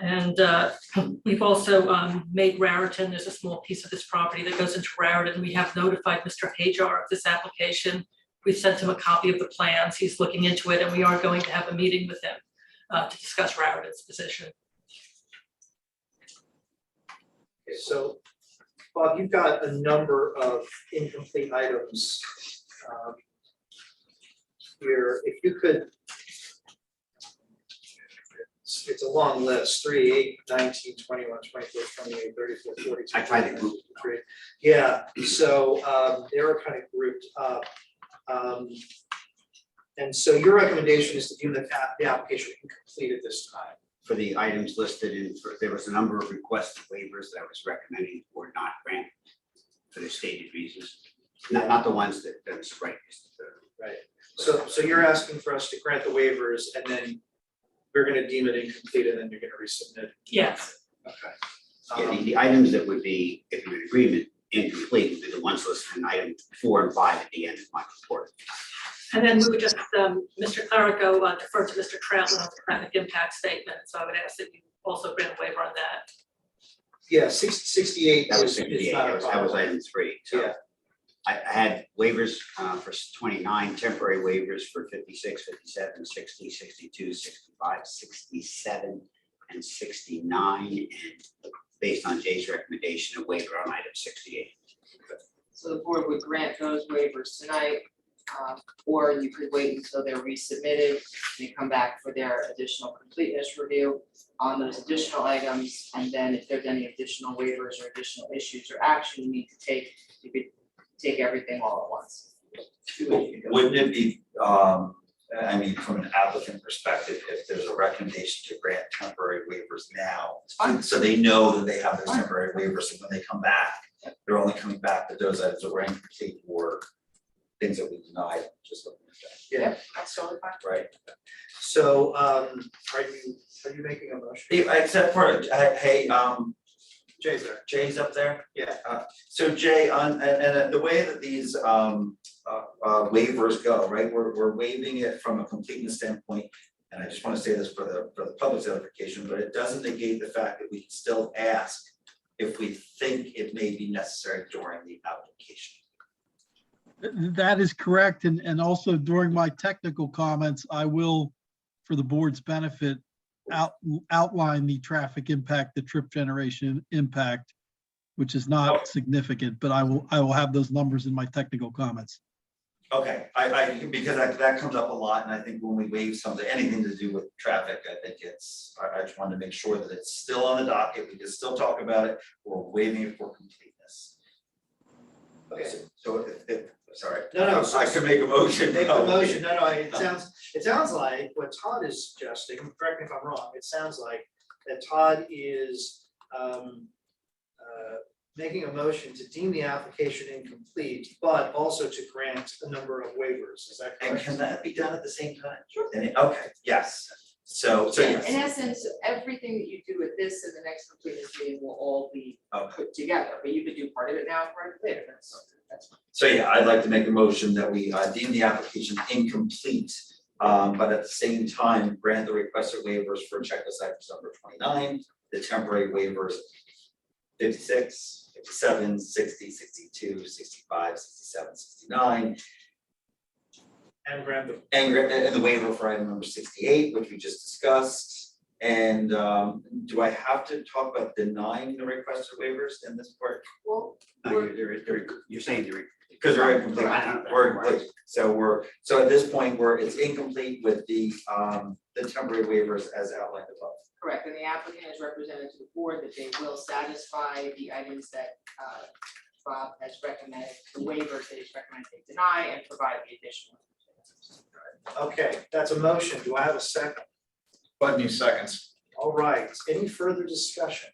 And uh, we've also um, made Raritan, there's a small piece of this property that goes into Raritan. We have notified Mr. Hajar of this application. We've sent him a copy of the plans. He's looking into it, and we are going to have a meeting with him uh, to discuss Raritan's position. Okay, so, Bob, you've got a number of incomplete items. um, Here, if you could. It's it's a long list, three, eight, nineteen, twenty-one, twenty-four, twenty-eight, thirty-four, forty-two. I tried to group them. Great. Yeah, so um, they're kind of grouped up. Um, And so your recommendation is to deem the app- the application incomplete at this time. for the items listed in, for- there was a number of requested waivers that I was recommending were not granted for the stated reasons. Not, not the ones that, that's right. it's the- Right. So, so you're asking for us to grant the waivers and then we're gonna deem it incomplete and then you're gonna resubmit. Um, Yes, Yeah, the, Okay. the items that would be, if you're in agreement, incomplete, would be the ones listed in item four and five at the end of my report. and then we would just, um, Mr. Clerico uh, deferred to Mr. Troutman on the traffic impact statement. So I would ask that you also grant a waiver on that. Yeah, six, sixty-eight That was is, sixty-eight, is not that a was, that was problem. item three, so. Yeah. I, I had waivers, uh, for twenty-nine, temporary waivers for 56, 57, 60, 62, 65, 67, and sixty-nine, and based on Jay's recommendation, a waiver on item sixty-eight. So the board would grant those waivers tonight, um, or you could wait until they're resubmitted, they come back for their additional completeness review on those additional items, and then if there's any additional waivers or additional issues or action you need to take, you could take everything all at once. Do what you do. Wouldn't it be, um, I mean, from an applicant perspective, if there's a recommendation to grant temporary waivers now? Fine. So they know that they have those temporary waivers, and when they come back, they're only coming back with those items that were incomplete or things that we denied, just looking at Yeah, that's totally fine. that, right? So, um, are you, are you making a motion? Hey, Except for, uh, hey, um, Jay's there. Jay's up there? Yeah. Uh, So Jay, on, and, and uh, the way that these, um, uh, uh, waivers go, right, we're, we're waiving it from a completeness standpoint. And I just wanna say this for the, for the public's notification, but it doesn't negate the fact that we can still ask if we think it may be necessary during the application. That is correct. And, and also during my technical comments, I will, for the board's benefit, out, outline the traffic impact, the trip generation impact, which is not significant, but I will, I will have those numbers in my technical comments. Okay, I, I, because that, that comes up a lot, and I think when we waive something, anything to do with traffic, I think it's, I, I just wanted to make sure that it's still on the docket, we can still talk about it, we're waiving it for completeness. Okay. So- So, if, if, sorry. No, no, I could make a motion. Make Oh, a motion, no, no, it sounds, it sounds like what Todd is suggesting, correct me if I'm wrong, it sounds like that Todd is, um, uh, making a motion to deem the application incomplete, but also to grant a number of waivers, is that And correct? can that be done at the same time? Sure. And, it- okay, yes, so, so Yeah, in yes, essence, everything that you do with this and the next completeness meeting will all be okay, put together, but you could do part of it now, part of it later, that's, that's. so yeah, I'd like to make a motion that we uh, deem the application incomplete. Um, but at the same time, grant the requested waivers for checklist items number twenty-nine, the temporary waivers 56, 57, 60, 62, 65, 67, 69, And grant the and gra- and the waiver for item number sixty-eight, which we just discussed. And um, do I have to talk about denying the requested waivers in this part? Well, No, you're, you're- you're, you're saying you're. Because they're incomplete, Right. we're, we're- so we're, so at this point, we're, it's incomplete with the um, the temporary waivers as outlined above. Correct, and the applicant has represented to the board that they will satisfy the items that uh, Bob has recommended, the waivers that he's recommended they deny and provide the additional. Okay, that's a motion. Do I have a second? Budney seconds. All right, any further discussion?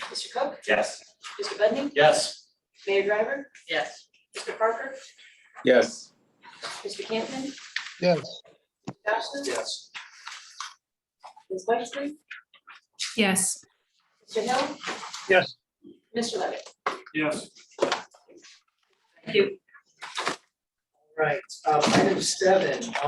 Mr. Cook, Yes. Mr. Budney, Yes. Mayor Driver, Yes. Mr. Parker, Yes. Mr. Campman, Yes. Jocelyn, Yes. Ms. Wexley, Yes. Mr. Hill. Yes. Mr. Levitt. Yes. Thank you. All right, um, uh, item seven,